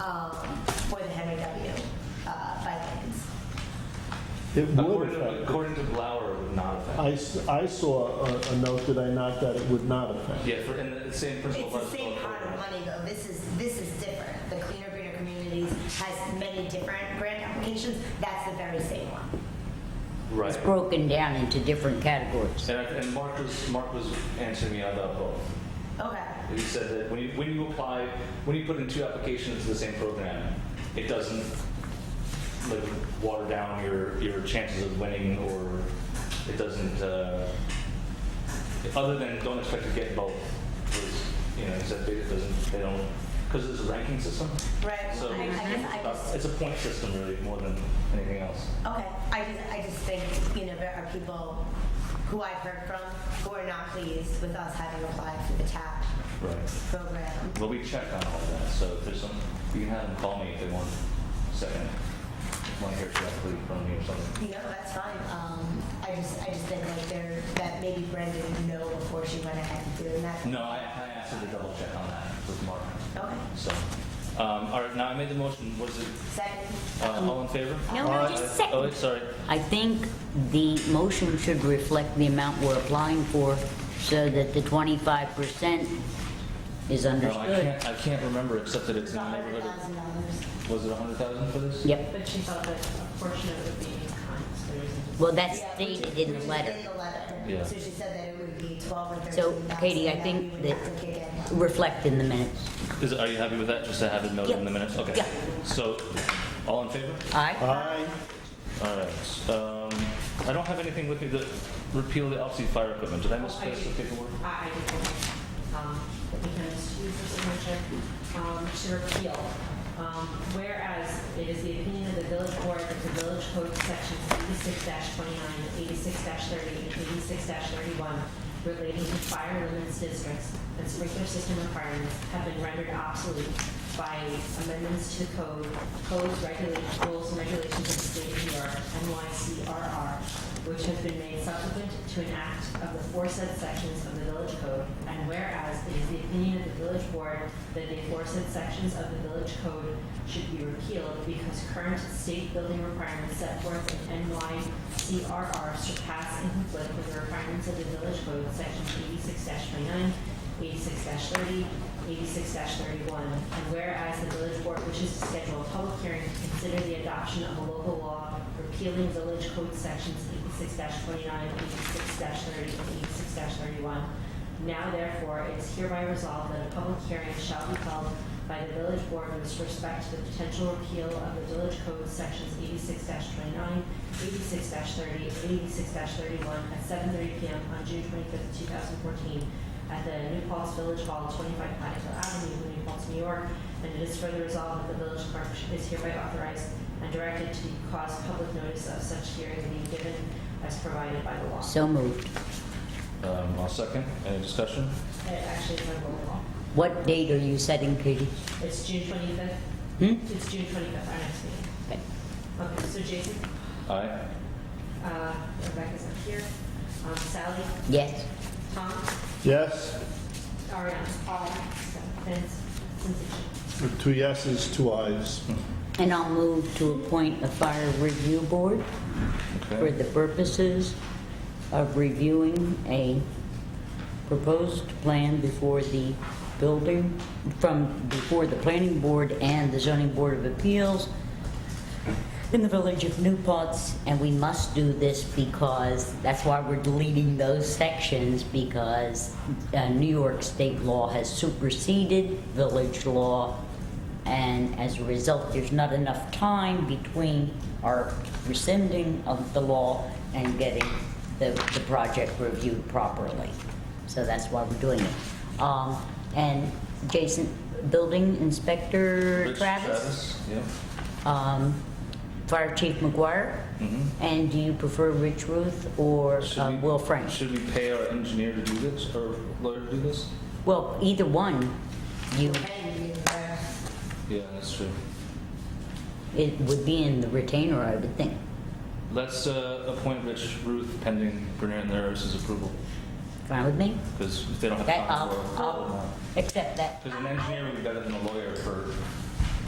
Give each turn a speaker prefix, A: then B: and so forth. A: um, for the Henry W. uh, bike lanes.
B: It would
C: According to,
B: affect. it.
C: according to Blauer, it would not affect.
B: I, s- I saw a, a note, did I not, that it would not affect?
C: Yeah, for, and the same principle.
A: It's the
C: applies to
A: same
C: both
A: pot of
C: programs.
A: money though, this is, this is different. The Cleaner Greener Communities has many different grant applications, that's the very same one.
C: Right.
D: It's broken down into different categories.
C: And, I- and Mark was, Mark was answering me about both.
A: Okay,
C: He said that when you, when you apply, when you put in two applications to the same program, it doesn't like water down your, your chances of winning or it doesn't, uh, other than don't expect to get both. was, You know, he said it doesn't, they don't, because it's a ranking system.
A: right,
C: So
A: well, I I guess I
C: it's
A: just,
C: about- it's a point system really more than anything else.
A: okay, I just, I just think, you know, there are people who I've heard from who are not pleased with us having applied for the TAP
C: Right.
A: program.
C: But we checked on all that, so if there's some, you can have them call me if they want, second, want to hear directly from me or something.
A: You know, that's fine. Um, I just, I just think like there, that maybe Brenda didn't know before she went ahead and doing that.
C: No, I, I asked her to double check on that with Mark,
A: Okay,
C: so. Um, all right, now I made the motion, was it,
A: second.
C: uh, all in favor?
D: No, no,
C: Aye.
D: just
C: Oh,
D: second.
C: wait, sorry,
D: I think the motion should reflect the amount we're applying for so that the 25% is
C: no, I
D: understood.
C: can't, I can't remember, except that it's in the
A: hundred
C: neighborhood,
A: thousand dollars.
C: of- was it a hundred thousand for this?
D: Yep,
E: But she thought that a portion of it would be in kind, so there isn't.
D: well, that's stated in the letter.
A: In the letter.
C: Yeah.
A: So she said that it would be twelve or thirteen
D: So,
A: thousand.
D: Katie, I think that- Reflect in the minutes.
C: Is, are you happy with that, just to have it noted in
D: Yeah.
C: the minutes, okay.
D: Yeah.
C: So, all in favor?
D: Aye?
B: I,
C: All right, um, I don't have anything with me that repeal the obsolete fire equipment, did I misplace the paperwork?
E: I, I did, um, because she was a signature, um, to repeal. Um, whereas it is the opinion of the village board that the village code sections eighty-six 29 86 30, and eighty-six thirty-one relating to fire limits districts and sprinkler system requirements have been rendered obsolete by amendments to the code, codes, regulations, rules, and regulations of the state of New York, NYCRR, which has been made subsequent to an act of the foresaid sections of the village code, and whereas it is the opinion of the village board that the foresaid sections of the village code should be repealed because current state building requirements set forth in NYCRR surpass and conflict with the requirements of the village code, sections eighty-six 29 86 thirty, eighty-six thirty-one, and whereas the village board wishes to schedule a public hearing to consider the adoption of a local law repealing village code sections eighty-six 29 86 thirty, and eighty-six thirty-one. Now therefore, it is hereby resolved that a public hearing shall be held by the village board with respect to the potential repeal of the village code sections eighty-six 29 86 thirty, and eighty-six thirty-one at seven thirty PM on June twenty-fifth, two thousand fourteen, at the New Paltz Village Hall, 25 Platte Hill Avenue, New Paltz, New York, and it is further resolved that the village clerk is hereby authorized and directed to cause public notice of such hearing to be given as provided by the law.
D: So moved.
C: Um, I'll second. Any discussion?
E: It Uh, actually is a roll call.
D: What date are you setting, Katie?
E: It's June 25th.
D: Hmm?
E: It's June 25th, our next meeting.
D: Okay.
E: Okay, so Jason,
C: Aye.
E: uh, Rebecca's up here. Um, Sally,
D: Yes,
E: Tom,
B: yes,
E: Ariana, Paul, Vince, Cynthia.
B: two yeses, two ayes.
D: and I'll move to appoint a fire review board for
C: Okay.
D: the purposes of reviewing a proposed plan before the building, from, before the planning board and the zoning board of appeals in the village of New Paltz, and we must do this because, that's why we're deleting those sections, because uh, New York state law has superseded village law, and as a result, there's not enough time between our rescinding of the law and getting the, the project reviewed properly. So that's why we're doing it. Um, and Jason, building inspector
C: Rich, Travis. Yep.
D: um, Fire Chief McGuire?
C: Mhm.
D: And do you prefer Rich Ruth or
C: Should
D: uh,
C: we-
D: Will Frank?
C: Should we pay our engineer to do this or lawyer to do this?
D: Well, either one, you,
C: Yeah, that's true.
D: it would be in the retainer, I would think.
C: Let's uh, appoint Rich Ruth pending Brenner and Laris's approval
D: Fine with me?
C: because if they don't have
D: That, uh,
C: time
D: I'll,
C: for it.
D: I'll accept that.
C: Because an engineer would be better than a lawyer for